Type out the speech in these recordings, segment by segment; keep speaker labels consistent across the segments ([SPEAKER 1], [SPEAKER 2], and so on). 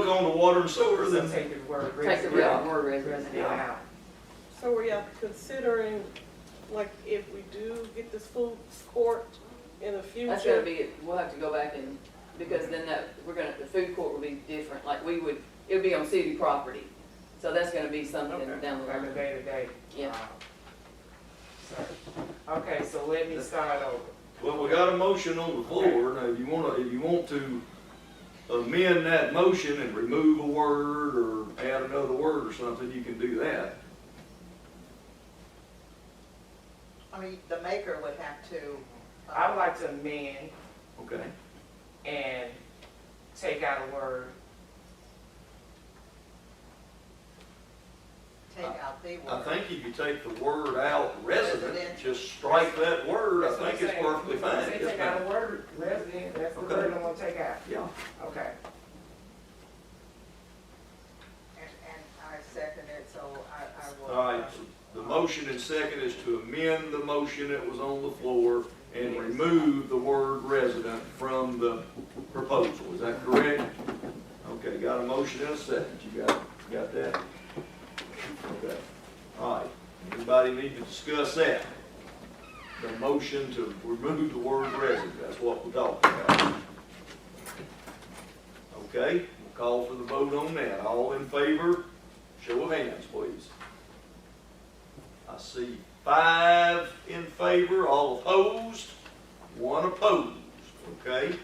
[SPEAKER 1] water and sewer,
[SPEAKER 2] So
[SPEAKER 1] then
[SPEAKER 2] take the word
[SPEAKER 3] Take the word
[SPEAKER 2] resident
[SPEAKER 3] word
[SPEAKER 2] residential
[SPEAKER 3] residential out.
[SPEAKER 2] out.
[SPEAKER 4] So are y'all considering, like, if we do get this food court in the
[SPEAKER 3] That's gonna
[SPEAKER 4] future?
[SPEAKER 3] be, we'll have to go back and, because then that, we're gonna, the food court will be different, like we would, it would be on city property. So that's gonna be something
[SPEAKER 2] Okay,
[SPEAKER 3] down the
[SPEAKER 2] Like a
[SPEAKER 3] line.
[SPEAKER 2] day-to-day.
[SPEAKER 3] Yeah.
[SPEAKER 2] uh, so- Okay, so let me start over.
[SPEAKER 1] Well, we got a motion on the floor, now if you wanna, if you want to amend that motion and remove a word or add another word or something, you can do that.
[SPEAKER 5] I mean, the maker would have to. uh,
[SPEAKER 2] I would like to amend
[SPEAKER 1] Okay,
[SPEAKER 2] and take out a word,
[SPEAKER 5] Take out the
[SPEAKER 1] I
[SPEAKER 5] word.
[SPEAKER 1] think if you take the word out resident,
[SPEAKER 5] Resident.
[SPEAKER 1] just strike that word, I
[SPEAKER 2] That's what
[SPEAKER 1] think
[SPEAKER 2] I'm
[SPEAKER 1] it's
[SPEAKER 2] saying.
[SPEAKER 1] perfectly fine.
[SPEAKER 2] Say
[SPEAKER 1] Yes,
[SPEAKER 2] take
[SPEAKER 1] ma'am.
[SPEAKER 2] out a word, resident, that's the
[SPEAKER 1] Okay.
[SPEAKER 2] word I want to take out,
[SPEAKER 1] Yeah,
[SPEAKER 2] okay.
[SPEAKER 5] And, and I second it, so I, I will.
[SPEAKER 1] all right, so the motion and second is to amend the motion that was on the floor and remove the word resident from the proposal, is that correct? Okay, got a motion and a second, you got, got that? Okay, all right, anybody need to discuss that? The motion to remove the word resident, that's what we're talking about. Okay, we'll call for the vote on that, all in favor, show of hands, please. I see five in favor, all opposed, one opposed, okay?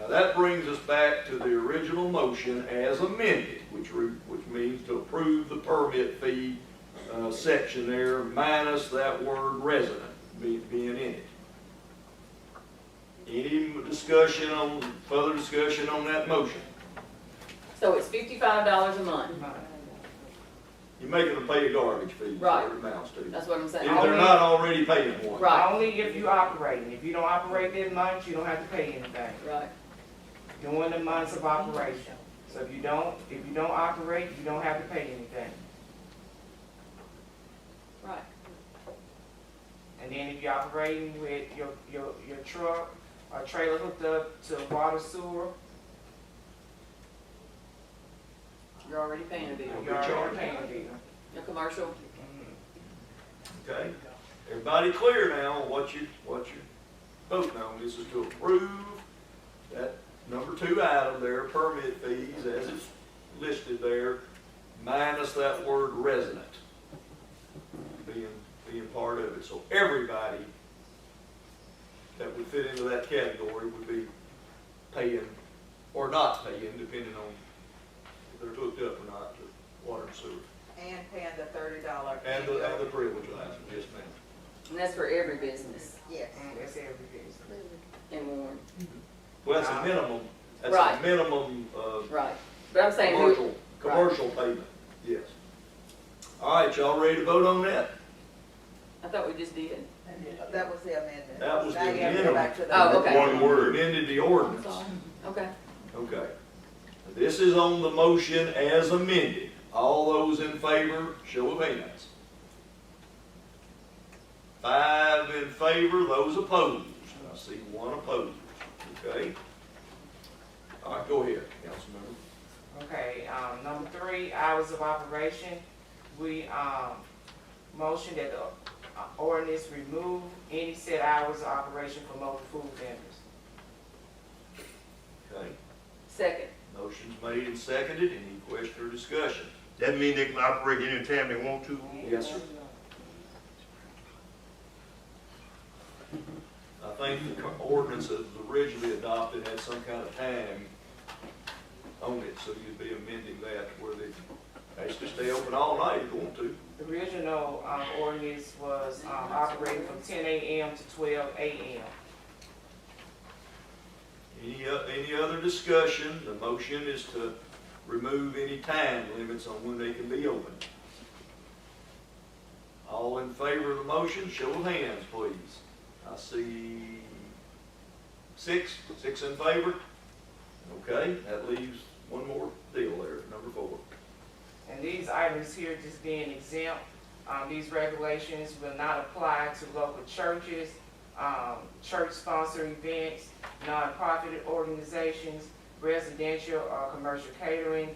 [SPEAKER 1] Now that brings us back to the original motion as amended, which re, which means to approve the permit fee, uh, section there, minus that word resident be- being in it. Any discussion on, further discussion on that motion?
[SPEAKER 3] So it's fifty-five dollars a month,
[SPEAKER 1] You make them pay a garbage fee, is what it amounts to. If
[SPEAKER 3] that's what I'm saying.
[SPEAKER 1] they're not already paying one.
[SPEAKER 3] Right.
[SPEAKER 2] Only if you operating, if you don't operate that month, you don't have to pay anything,
[SPEAKER 3] Right,
[SPEAKER 2] during the months of operation. So if you don't, if you don't operate, you don't have to pay anything.
[SPEAKER 3] right.
[SPEAKER 2] And then if you're operating with your, your, your truck or trailer hooked up to water sewer,
[SPEAKER 3] You're already paying a bill.
[SPEAKER 2] you're already paying a bill.
[SPEAKER 3] Your commercial,
[SPEAKER 2] Mhm.
[SPEAKER 1] Okay, everybody clear now on what you, what you voting on, this is to approve that number two item there, permit fees, as it's listed there, minus that word resident being, being part of it, so everybody that would fit into that category would be paying or not paying, depending on if they're hooked up or not to water and sewer.
[SPEAKER 5] And paying the thirty dollar.
[SPEAKER 1] And the, and the privilege license, yes ma'am.
[SPEAKER 3] and that's for every business
[SPEAKER 5] Yes.
[SPEAKER 2] Mm, That's every business.
[SPEAKER 3] in Warren,
[SPEAKER 1] Well, that's a minimum, that's a
[SPEAKER 3] Right.
[SPEAKER 1] minimum, uh,
[SPEAKER 3] right. But I'm saying, who-
[SPEAKER 1] commercial, commercial payment, yes. All right, y'all ready to vote on that?
[SPEAKER 3] I thought we just did.
[SPEAKER 5] That was the amendment.
[SPEAKER 1] That was the
[SPEAKER 5] Now you have to go back to the.
[SPEAKER 3] Oh, okay.
[SPEAKER 1] One word. Amended the ordinance,
[SPEAKER 3] Okay,
[SPEAKER 1] okay. This is on the motion as amended. All those in favor, show of hands. Five in favor, those opposed. I see one opposed, okay? All right, go ahead, Councilmember.
[SPEAKER 2] Okay, um, number three, hours of operation, we, um, motion that the uh, ordinance remove any set hours of operation for mobile food vendors.
[SPEAKER 1] Okay.
[SPEAKER 3] second,
[SPEAKER 1] Motion's made and seconded, any question or discussion?
[SPEAKER 6] That mean they can operate anytime they want to?
[SPEAKER 2] Mm-hmm.
[SPEAKER 1] Yes, sir. I think the ordinance that was originally adopted had some kind of time on it, so you'd be amending that where they, they should stay open all night if you want to.
[SPEAKER 2] The original, um, ordinance was, um, operating from ten AM to twelve AM.
[SPEAKER 1] Any, o- any other discussion? The motion is to remove any time limits on when they can be open. All in favor of the motion, show of hands, please. I see six, six in favor. Okay, that leaves one more deal there, number four.
[SPEAKER 2] And these items here just being exempt, um, these regulations will not apply to local churches, um, church-sponsored events, nonprofit organizations, residential or commercial catering,